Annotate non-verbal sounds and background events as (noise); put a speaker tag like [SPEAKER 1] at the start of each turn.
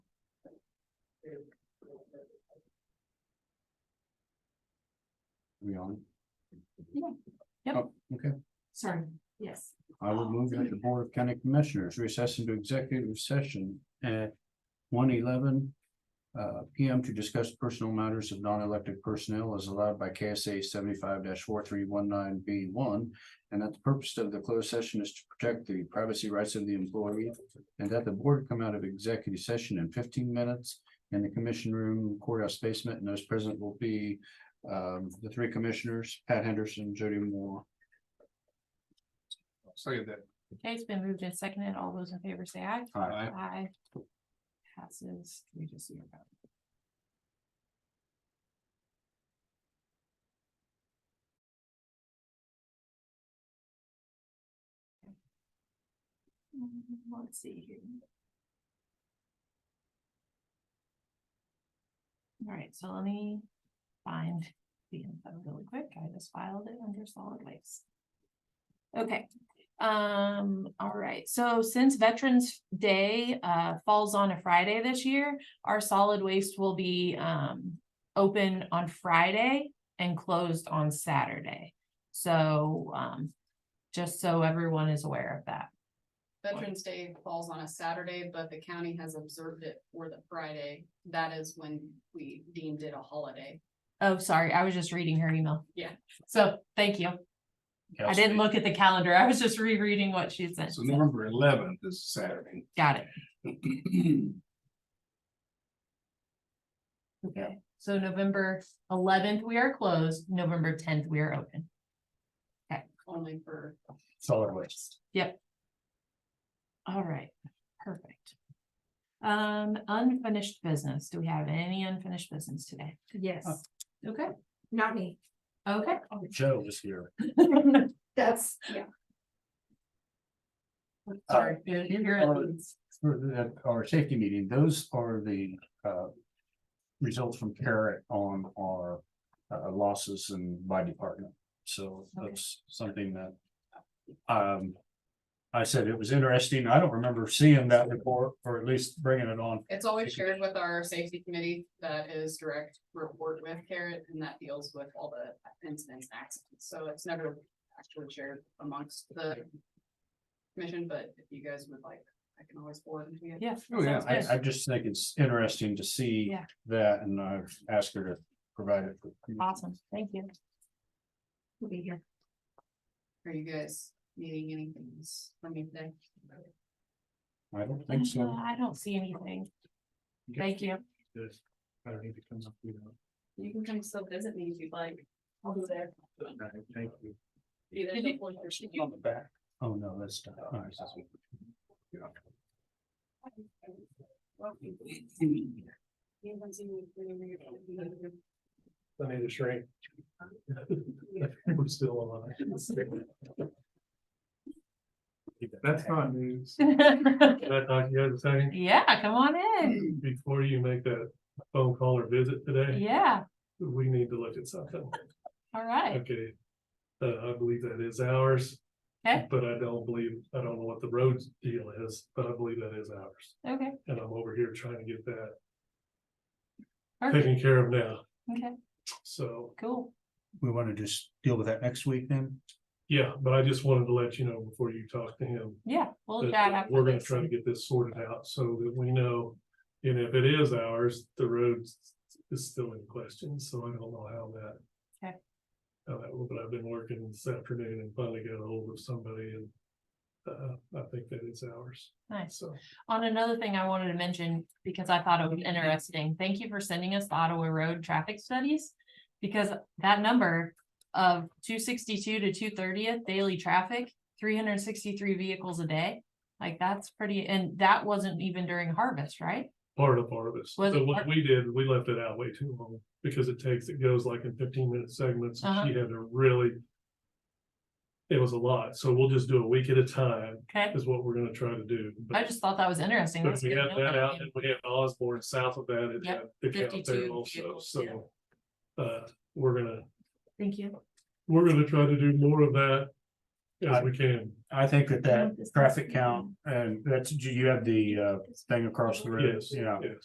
[SPEAKER 1] We on?
[SPEAKER 2] Yeah. Yep.
[SPEAKER 1] Oh, Okay,
[SPEAKER 2] Sorry, yes.
[SPEAKER 1] I will move that the Board of County Commissioners recess into executive session at one eleven. Uh, P M to discuss personal matters of non-elected personnel as allowed by K S A seventy-five four three one nine B one. And that the purpose of the closed session is to protect the privacy rights of the employee. And that the board come out of executive session in fifteen minutes in the commission room courthouse basement, and those present will be. Um, the three commissioners, Pat Henderson, Jody Moore,
[SPEAKER 3] Say that.
[SPEAKER 2] Okay, it's been moved and seconded. All those in favor say aye.
[SPEAKER 1] Aye.
[SPEAKER 2] Aye. Passes three to zero. Mm, Let's see here. All right, so let me find the info really quick. I just filed it under solid waste. Okay, um, all right, so since Veterans Day uh falls on a Friday this year, our solid waste will be um open on Friday and closed on Saturday. So um just so everyone is aware of that.
[SPEAKER 4] Veterans Day falls on a Saturday, but the county has observed it for the Friday. That is when we deemed it a holiday.
[SPEAKER 2] Oh, sorry, I was just reading her email.
[SPEAKER 4] Yeah.
[SPEAKER 2] So, thank you. I didn't look at the calendar. I was just rereading what she sent.
[SPEAKER 3] So
[SPEAKER 2] So,
[SPEAKER 3] November eleventh is Saturday.
[SPEAKER 2] Got it. Okay, so November eleventh, we are closed. November tenth, we are open.
[SPEAKER 4] Only for,
[SPEAKER 1] (clears throat) solid waste.
[SPEAKER 2] All right, perfect. Um, unfinished business. Do we have any unfinished business today? Oh,
[SPEAKER 5] Yes,
[SPEAKER 2] Okay,
[SPEAKER 5] not me.
[SPEAKER 2] okay.
[SPEAKER 1] Joe was here.
[SPEAKER 5] (laughs) That's, yeah.
[SPEAKER 2] Sorry.
[SPEAKER 1] Uh, For the, our safety meeting, those are the, uh, results from Carrot on our, uh, losses and by department. So
[SPEAKER 2] Okay.
[SPEAKER 1] that's something that, um, I said it was interesting. I don't remember seeing that report or at least bringing it on.
[SPEAKER 4] it's always shared with our safety committee that is direct report with Carrot and that deals with all the incidents and accidents. So it's never actually shared amongst the commission, but if you guys would like, I can always forward it
[SPEAKER 6] uh,
[SPEAKER 4] to you.
[SPEAKER 2] Yeah.
[SPEAKER 3] Oh, yeah,
[SPEAKER 2] sounds
[SPEAKER 1] I,
[SPEAKER 2] good.
[SPEAKER 1] I just think it's interesting to see
[SPEAKER 2] Yeah.
[SPEAKER 1] that and I asked her to provide it. for-
[SPEAKER 2] Awesome, thank you.
[SPEAKER 5] We'll be here.
[SPEAKER 4] Are you guys needing anything else from me today?
[SPEAKER 1] I don't think
[SPEAKER 2] Uh,
[SPEAKER 1] so.
[SPEAKER 2] I don't see anything. Thank you. (laughs)
[SPEAKER 3] I don't need to come up, you know.
[SPEAKER 4] You can come still visit me if you'd like. I'll be there.
[SPEAKER 3] Thank you.
[SPEAKER 4] (laughs) Either
[SPEAKER 2] Did
[SPEAKER 4] the fourth or
[SPEAKER 3] On the back.
[SPEAKER 1] Oh, no, that's. not- all right.
[SPEAKER 3] I need a
[SPEAKER 6] (laughs)
[SPEAKER 3] shrink. We're still alive. That's not news.
[SPEAKER 6] That knock you out a second
[SPEAKER 2] Yeah, come on in.
[SPEAKER 6] before you make that phone call or visit today,
[SPEAKER 2] Yeah,
[SPEAKER 6] we need to look at something.
[SPEAKER 2] all right,
[SPEAKER 6] Okay. Uh, I believe that is ours.
[SPEAKER 2] Okay.
[SPEAKER 6] But I don't believe, I don't know what the roads deal is, but I believe that is ours.
[SPEAKER 2] okay,
[SPEAKER 6] And I'm over here trying to get that
[SPEAKER 2] perfect,
[SPEAKER 6] taken care of now.
[SPEAKER 2] okay,
[SPEAKER 6] So,
[SPEAKER 2] cool.
[SPEAKER 1] We want to just deal with that next week then?
[SPEAKER 6] yeah, but I just wanted to let you know before you talk to him.
[SPEAKER 2] Yeah, we'll
[SPEAKER 6] that-
[SPEAKER 2] chat
[SPEAKER 6] that We're
[SPEAKER 2] after
[SPEAKER 6] gonna
[SPEAKER 2] this.
[SPEAKER 6] try to get this sorted out so that we know, and if it is ours, the road is still in question, so I don't know how that.
[SPEAKER 2] Okay.
[SPEAKER 6] How that, will, but I've been working this afternoon and finally got a hold of somebody and, uh, I think that it's ours,
[SPEAKER 2] Nice.
[SPEAKER 6] so.
[SPEAKER 2] On another thing I wanted to mention, because I thought it was
[SPEAKER 6] Mm-hmm.
[SPEAKER 2] interesting, thank you for sending us the Ottawa Road traffic studies. Because that number of two sixty-two to two thirtieth daily traffic, three hundred and sixty-three vehicles a day. Like, that's pretty, and that wasn't even during harvest, right?
[SPEAKER 6] Part of part of it.
[SPEAKER 2] Was
[SPEAKER 6] So
[SPEAKER 2] it
[SPEAKER 6] what
[SPEAKER 2] part-
[SPEAKER 6] we did, we left it out way too long because it takes, it goes like in fifteen minute segments. and
[SPEAKER 2] Uh-huh.
[SPEAKER 6] She had to really. It was a lot, so we'll just do a week at a time
[SPEAKER 2] Okay,
[SPEAKER 6] is what we're gonna try to do. but-
[SPEAKER 2] I just thought that was interesting.
[SPEAKER 6] But
[SPEAKER 2] That's
[SPEAKER 6] we
[SPEAKER 2] good
[SPEAKER 6] have
[SPEAKER 2] to know
[SPEAKER 6] that out,
[SPEAKER 2] again.
[SPEAKER 6] and we have Osborne south of that, and
[SPEAKER 2] Yep,
[SPEAKER 6] the count
[SPEAKER 2] 52
[SPEAKER 6] there also,
[SPEAKER 2] vehicles,
[SPEAKER 6] so. Uh, we're gonna,
[SPEAKER 2] Thank you.
[SPEAKER 6] we're gonna try to do more of that as we can,
[SPEAKER 1] I think that
[SPEAKER 2] Yeah,
[SPEAKER 1] that
[SPEAKER 2] this is-
[SPEAKER 1] traffic count, and that's, you have the uh thing across the road,
[SPEAKER 6] yes,
[SPEAKER 1] yeah.
[SPEAKER 6] yes.